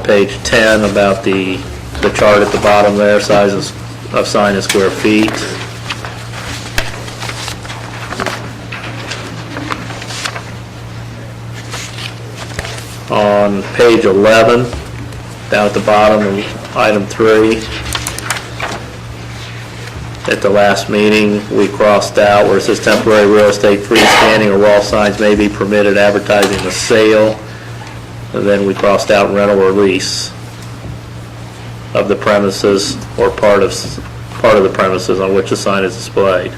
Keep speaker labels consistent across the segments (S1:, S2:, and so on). S1: page 10 about the, the chart at the bottom there, sizes of sign in square feet. On page 11, down at the bottom, of item 3, at the last meeting, we crossed out where it says temporary real estate freestanding or wall signs may be permitted advertising the sale. And then we crossed out rental or lease of the premises or part of, part of the premises on which the sign is displayed.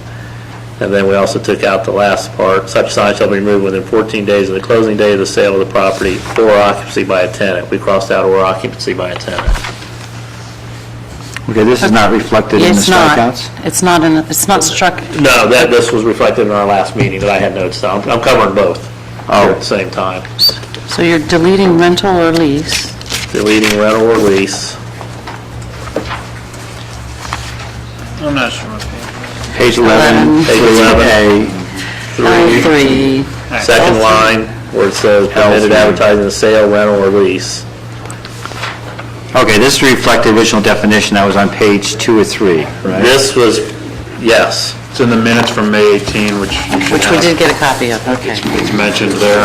S1: And then we also took out the last part, such sign shall be removed within 14 days of the closing day of the sale of the property or occupancy by a tenant. We crossed out or occupancy by a tenant.
S2: Okay, this is not reflected in the
S3: It's not.
S2: strikeouts?
S3: It's not, in- it's not struck,
S1: No, that, this was reflected in our last meeting that I had notes on. I'm covering both all at the same time.
S3: so you're deleting rental or lease.
S1: Deleting rental or lease.
S4: I'm not sure what page.
S2: Page 11,
S1: Page
S2: 14A,
S3: Line three,
S1: Second line, where it says permitted advertising the sale, rental, or lease.
S2: okay, this reflected original definition that was on page two or three, right?
S1: This was, yes,
S5: It's in the minutes from May 18, which you should
S3: which we
S5: have.
S3: did get a copy of, okay.
S5: It's mentioned there.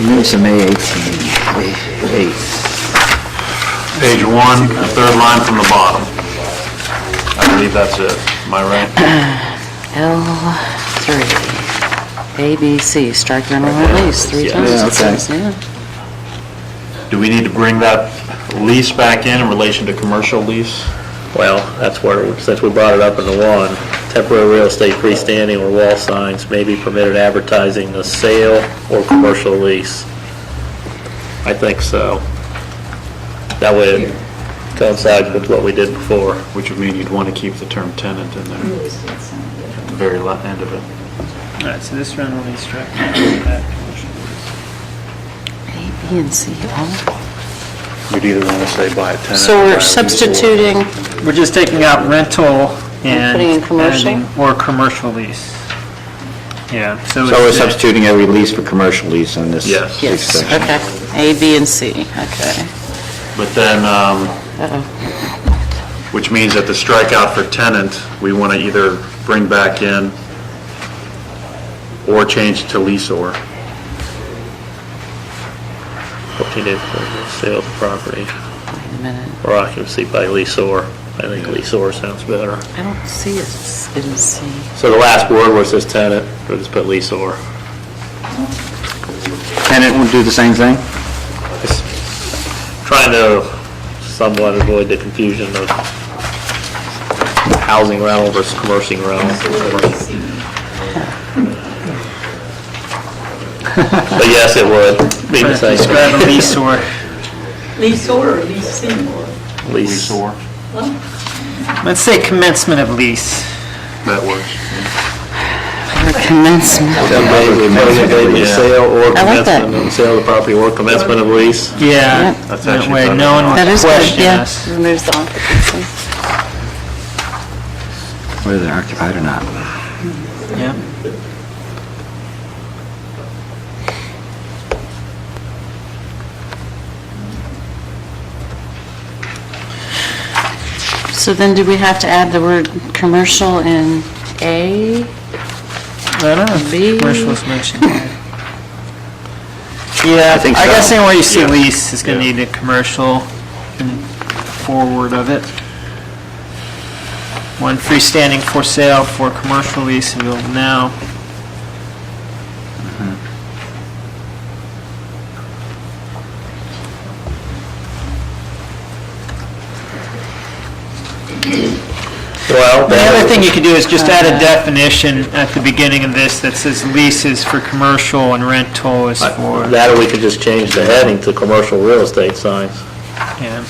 S2: Minutes of May 18, May 8th.
S5: Page one, the third line from the bottom. I believe that's it. Am I right?
S3: L three, A, B, C, strike rental or lease, three
S1: Yeah.
S3: times
S2: Yeah,
S3: it
S2: okay.
S3: says, yeah.
S5: Do we need to bring that lease back in in relation to commercial lease?
S1: well, that's where, since we brought it up in the one, temporary real estate freestanding or wall signs may be permitted advertising the sale or commercial lease. I think so. That way it coincides with what we did before.
S5: Which would mean you'd want to keep the term tenant in there at the very la- end of it.
S4: All right, so this rental lease struck. That commercial lease.
S3: A, B, and C, all.
S5: You'd either want to say by a tenant.
S3: So
S5: or by a
S3: we're
S5: lease or-
S3: substituting,
S4: We're just taking out rental and.
S3: putting in commercial?
S4: and- Or commercial lease. Yeah, so.
S2: So we're
S4: it's-
S2: substituting a release for commercial lease on this
S5: Yes.
S2: lease
S3: yes,
S2: section.
S3: okay. A, B, and C, okay.
S5: But then, um, which means that the strikeout for tenant, we want to either bring back in or change to lease or.
S1: 14 days before the sale of the property,
S3: Wait a minute,
S1: or occupancy by leaseor. I think leaseor sounds better.
S3: I don't see it in C.
S1: So the last word was this tenant, we just put leaseor.
S2: Tenant will do the same thing?
S1: Just Trying to somewhat avoid the confusion of housing rental versus commercial rental. But yes, it would be the same.
S4: Describe a lease or,
S6: Lease or lease senior?
S1: Lease.
S4: let's say commencement of lease.
S5: That works.
S3: Or commencement,
S1: Commencement of lease, Sale or
S3: I like that.
S1: commencement of sale of the property or commencement of lease.
S4: Yeah.
S3: Yep.
S5: That's
S4: That
S5: actually
S4: way,
S5: better.
S4: no one
S3: that
S4: will
S3: is good,
S4: question
S3: yeah.
S4: us.
S3: Removes the occupancy.
S2: Whether they're occupied or not.
S4: Yeah.
S3: So then do we have to add the word "commercial" in A?
S4: I don't know if
S3: B.
S4: commercial is mentioned there. Yeah, I
S2: think so.
S4: guess anywhere you see lease is gonna need a commercial and forward of it. One freestanding for sale for commercial lease and build now.
S1: Well,
S4: The other
S1: that-
S4: thing you could do is just add a definition at the beginning of this that says leases for commercial and rental is for,
S1: That or we could just change the heading to commercial real estate signs.
S4: yeah.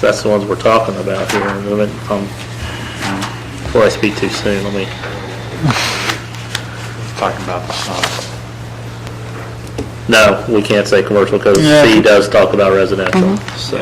S1: That's the ones we're talking about here. in a minute. Um, Before I speak too soon, let me,
S5: Talking about the sign.
S1: no, we can't say commercial because
S4: Yeah.
S1: C does talk about residential, so.